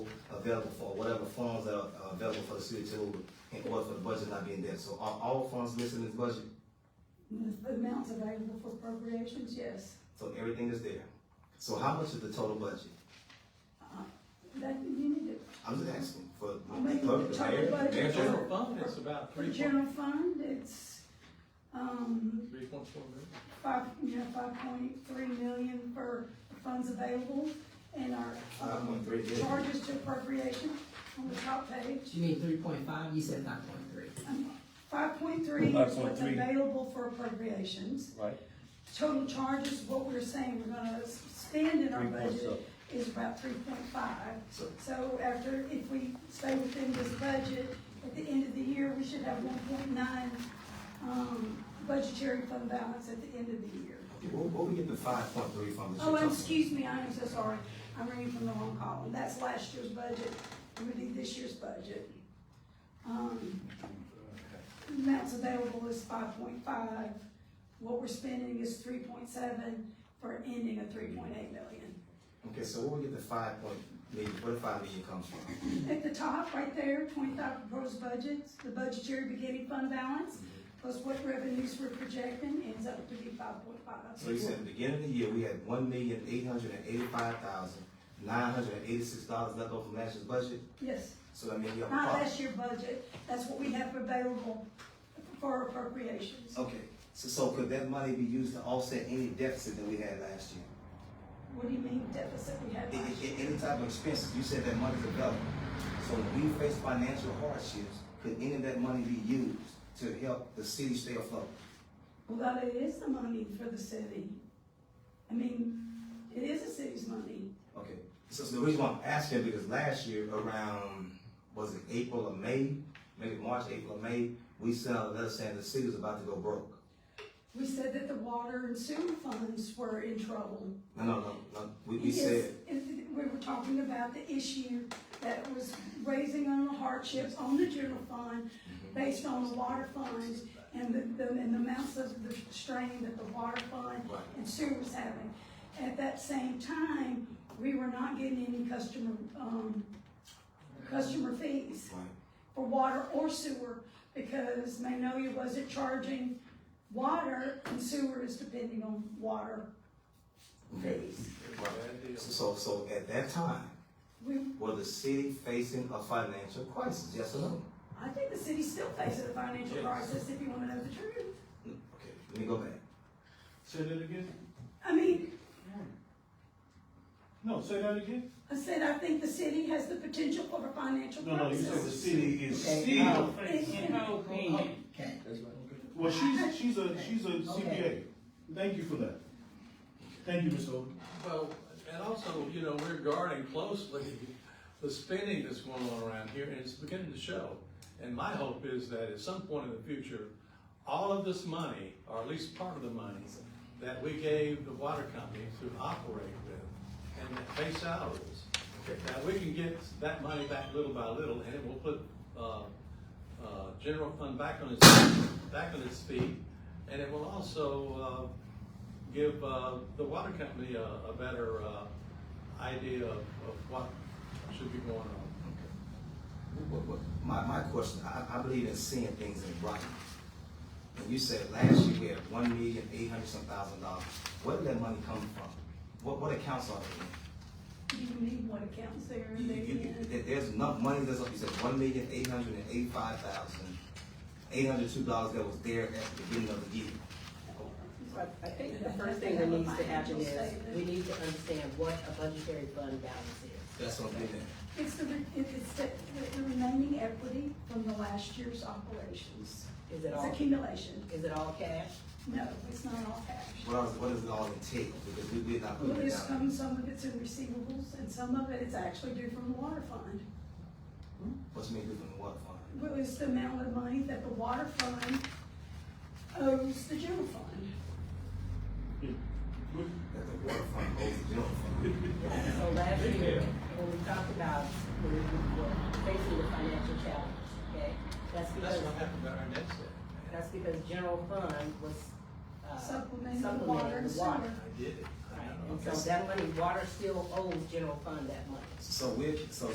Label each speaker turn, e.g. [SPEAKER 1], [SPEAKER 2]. [SPEAKER 1] available for, whatever funds that are uh, available for the city to, in order for the budget not being there. So are all funds listed in this budget?
[SPEAKER 2] The amounts available for appropriations, yes.
[SPEAKER 1] So everything is there. So how much is the total budget?
[SPEAKER 2] That, you need it.
[SPEAKER 1] I'm just asking for
[SPEAKER 2] I mean,
[SPEAKER 1] the clerk, the
[SPEAKER 2] the total
[SPEAKER 1] mayor,
[SPEAKER 2] budget.
[SPEAKER 1] the mayor. general.
[SPEAKER 2] General
[SPEAKER 3] General fund is about
[SPEAKER 2] For
[SPEAKER 3] three point,
[SPEAKER 2] general fund, it's, um,
[SPEAKER 3] three point four million.
[SPEAKER 2] five, you know, five point three million for funds available and our, um,
[SPEAKER 1] 5.3 million.
[SPEAKER 2] charges to appropriation on the top page.
[SPEAKER 4] You mean three point five, you said five point three.
[SPEAKER 2] Five point three is what's
[SPEAKER 5] 5.3.
[SPEAKER 2] available for appropriations.
[SPEAKER 5] Right.
[SPEAKER 2] Total charges, what we're saying we're gonna s- spend in our budget is about three point five.
[SPEAKER 1] So
[SPEAKER 2] So after, if we stay within this budget, at the end of the year, we should have one point nine, um, budgetary fund balance at the end of the year.
[SPEAKER 1] okay, where, where we get the five point three from? that
[SPEAKER 2] Oh,
[SPEAKER 1] you're
[SPEAKER 2] and
[SPEAKER 1] talking
[SPEAKER 2] excuse me, I am so sorry, I'm reading from the wrong column, that's last year's budget, I'm reading this year's budget. Um, amounts available is five point five, what we're spending is three point seven, for ending of three point eight million.
[SPEAKER 1] about? Okay, so where we get the five point million, where the five million comes from?
[SPEAKER 2] At the top, right there, twenty-five proposed budgets, the budgetary beginning fund balance, plus what revenues we're projecting, ends up to be five point
[SPEAKER 1] So you
[SPEAKER 2] five.
[SPEAKER 1] said at the beginning of the year, we had one million eight hundred and eighty-five thousand nine hundred and eighty-six dollars left over from last year's budget,
[SPEAKER 2] Yes,
[SPEAKER 1] so that means we have a
[SPEAKER 2] not
[SPEAKER 1] problem.
[SPEAKER 2] last year budget, that's what we have available for appropriations.
[SPEAKER 1] Okay, so, so could that money be used to offset any deficit that we had last year?
[SPEAKER 2] What do you mean deficit we had
[SPEAKER 1] A-
[SPEAKER 2] last
[SPEAKER 1] a-
[SPEAKER 2] year?
[SPEAKER 1] a- Any type of expenses, you said that money's available. So when we face financial hardships, could any of that money be used to help the city stay afloat?
[SPEAKER 2] Well, that is the money for the city. I mean, it is the city's money.
[SPEAKER 1] Okay, so, so the reason why I'm asking, because last year around, was it April or May? Maybe March, April, or May, we sent out a letter saying the city was about to go broke.
[SPEAKER 2] We said that the water and sewer funds were in trouble.
[SPEAKER 1] No, no, no, no, we, we
[SPEAKER 2] Yes,
[SPEAKER 1] said,
[SPEAKER 2] and We were talking about the issue that was raising on the hardships on the general fund based on the water funds and the, the, and the amounts of the strain that the water fund
[SPEAKER 1] Right.
[SPEAKER 2] and sewer was having. At that same time, we were not getting any customer, um, customer fees
[SPEAKER 1] right,
[SPEAKER 2] for water or sewer because Magnolia wasn't charging water and sewer is depending on water fees.
[SPEAKER 1] right. So, so at that time,
[SPEAKER 2] We,
[SPEAKER 1] Were the city facing a financial crisis? Yes or no?
[SPEAKER 2] I think the city's still facing a financial
[SPEAKER 3] Yes.
[SPEAKER 2] crisis, if you wanna know the truth.
[SPEAKER 1] Okay, let me go back.
[SPEAKER 5] Say that again?
[SPEAKER 2] I mean,
[SPEAKER 5] No, say that again?
[SPEAKER 2] I said, I think the city has the potential for a financial
[SPEAKER 5] No, no, you said the
[SPEAKER 2] crisis.
[SPEAKER 5] city is
[SPEAKER 4] Okay,
[SPEAKER 5] still
[SPEAKER 4] no.
[SPEAKER 5] facing.
[SPEAKER 4] Okay,
[SPEAKER 5] Well, she's, she's a, she's a CPA. Thank you for that. Thank you, Ms. Oden.
[SPEAKER 3] Well, and also, you know, we're guarding closely the spending that's going on around here, and it's beginning to show. And my hope is that at some point in the future, all of this money, or at least part of the money, that we gave the water company to operate with and that pay salaries, that we can get that money back little by little, and it will put, uh, uh, general fund back on its, back on its feet, and it will also, uh, give uh, the water company a, a better uh, idea of, of what should be going on.
[SPEAKER 1] What- what- My, my question, I, I believe in seeing things in writing. And you said last year we had one million eight hundred some thousand dollars. Where did that money come from? What, what accounts are they
[SPEAKER 2] You need what accounts there
[SPEAKER 1] in?
[SPEAKER 2] and
[SPEAKER 1] You-
[SPEAKER 2] there
[SPEAKER 1] you- you-
[SPEAKER 2] and.
[SPEAKER 1] there- There's enough money, that's, you said one million eight hundred and eighty-five thousand, eight hundred two dollars that was there at the beginning of the year.
[SPEAKER 6] But I think the first thing that needs to happen is, we need to understand what a budgetary fund balance is.
[SPEAKER 1] That's what I'm getting at.
[SPEAKER 2] It's the, re- it- it's the, the- the remaining equity from the last year's operations.
[SPEAKER 6] Is it
[SPEAKER 2] It's
[SPEAKER 6] all,
[SPEAKER 2] accumulation.
[SPEAKER 6] is it all cash?
[SPEAKER 2] No, it's not all cash.
[SPEAKER 1] What else, what does it all entail? Because we did not put
[SPEAKER 2] Well,
[SPEAKER 1] it
[SPEAKER 2] there's
[SPEAKER 1] down.
[SPEAKER 2] some, some of it's in receivables and some of it is actually due from the water fund.
[SPEAKER 1] What's made different from the water fund?
[SPEAKER 2] Well, it's the amount of money that the water fund owes the general fund.
[SPEAKER 1] That the water fund owes the general fund.
[SPEAKER 6] So last year, when we talked about, we were facing the financial challenge, okay? That's
[SPEAKER 3] That's
[SPEAKER 6] because,
[SPEAKER 3] what happened to our net debt.
[SPEAKER 6] that's because general fund was, uh,
[SPEAKER 2] Supplementing the water and
[SPEAKER 6] supplementing the
[SPEAKER 2] sewer.
[SPEAKER 6] water.
[SPEAKER 3] I did it. I
[SPEAKER 6] Right,
[SPEAKER 3] know.
[SPEAKER 6] and so that money, water still owes general fund that money.
[SPEAKER 1] So we're, so